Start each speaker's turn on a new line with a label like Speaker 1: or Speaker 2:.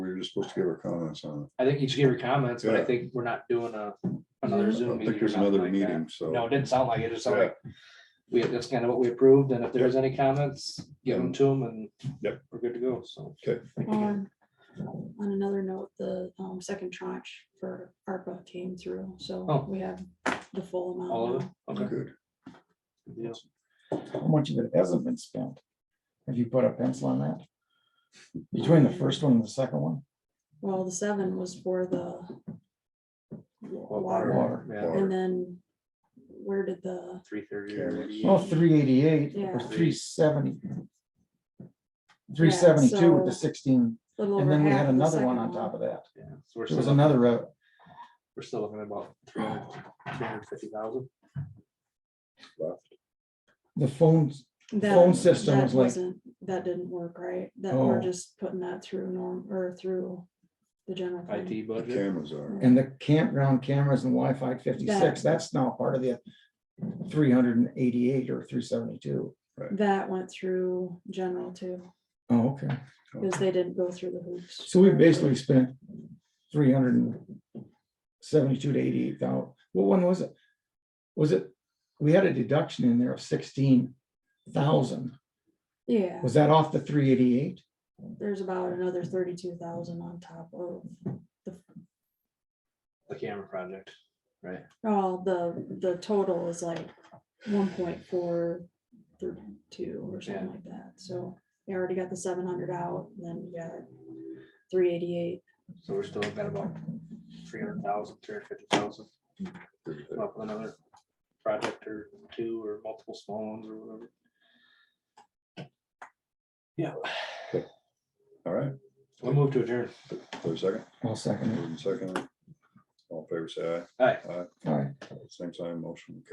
Speaker 1: you're supposed to give her comments on
Speaker 2: I think you just gave her comments, but I
Speaker 1: Yeah.
Speaker 2: think we're not doing a, another
Speaker 1: it. I
Speaker 2: Zoom
Speaker 1: don't
Speaker 2: meeting.
Speaker 1: think
Speaker 2: or
Speaker 1: there's
Speaker 2: something
Speaker 1: another
Speaker 2: like that.
Speaker 1: meeting, so.
Speaker 2: No, it didn't sound like it, it just sounded
Speaker 1: Yeah.
Speaker 2: like we, that's kind of what we approved, and if there's any comments, give them to them and
Speaker 1: Mm. Yep.
Speaker 2: we're good to go, so.
Speaker 3: Um, On another note, the um, second tranche for ARPA came through, so
Speaker 2: Oh.
Speaker 3: we have the full amount.
Speaker 2: All of it,
Speaker 3: now.
Speaker 2: okay.
Speaker 1: Good.
Speaker 2: good deal.
Speaker 4: How much of it hasn't been spent? Have you put a pencil on that? Between the first one and the second one?
Speaker 3: Well, the seven was for the water,
Speaker 4: Water.
Speaker 2: Yeah,
Speaker 3: and then where did the,
Speaker 2: three thirty already.
Speaker 4: Well, three eighty-eight
Speaker 3: Yeah.
Speaker 4: or three seventy. Three seventy-two with the
Speaker 3: so-
Speaker 4: sixteen,
Speaker 3: little
Speaker 4: and
Speaker 3: over
Speaker 4: then we
Speaker 3: half
Speaker 4: had
Speaker 3: of the
Speaker 4: another
Speaker 3: second
Speaker 4: one on top of that.
Speaker 2: Yeah, so we're still,
Speaker 4: There was
Speaker 2: looking-
Speaker 4: another, uh, rev-
Speaker 2: we're still looking at about three hundred fifty thousand.
Speaker 4: the phones,
Speaker 3: That-
Speaker 4: phone system
Speaker 3: that
Speaker 4: was like-
Speaker 3: wasn't- That didn't work, right? That we're
Speaker 4: Oh.
Speaker 3: just putting that through norm, or through the general. fund.
Speaker 2: IT
Speaker 1: The
Speaker 2: budget,
Speaker 1: cameras are.
Speaker 4: and the campground cameras and Wi-Fi fifty-six, that's now part of the three hundred and eighty-eight or three seventy-two.
Speaker 3: That went through general too,
Speaker 4: Oh, okay.
Speaker 3: because they didn't go through the hoops.
Speaker 4: So we basically spent three hundred and seventy-two to eighty-eight thousand. What one was it? Was it, we had a deduction in there of sixteen thousand.
Speaker 3: Yeah.
Speaker 4: Was that off the three eighty-eight?
Speaker 3: There's about another thirty-two thousand on top of,
Speaker 2: the camera project, right?
Speaker 3: oh, the, the total is like one point four thirty-two or something
Speaker 2: Yeah.
Speaker 3: like that, so. You already got the seven hundred out, and then you got three eighty-eight,
Speaker 2: So we're still looking at about three hundred thousand, three hundred fifty thousand, up with another project or two or multiple small ones or whatever. Yeah,
Speaker 1: All right,
Speaker 2: we'll move to adjourn.
Speaker 1: for a second,
Speaker 4: I'll second it.
Speaker 1: moving second. All in favor say
Speaker 2: All right.
Speaker 1: aye.
Speaker 4: All right.
Speaker 1: Aye, same time, motion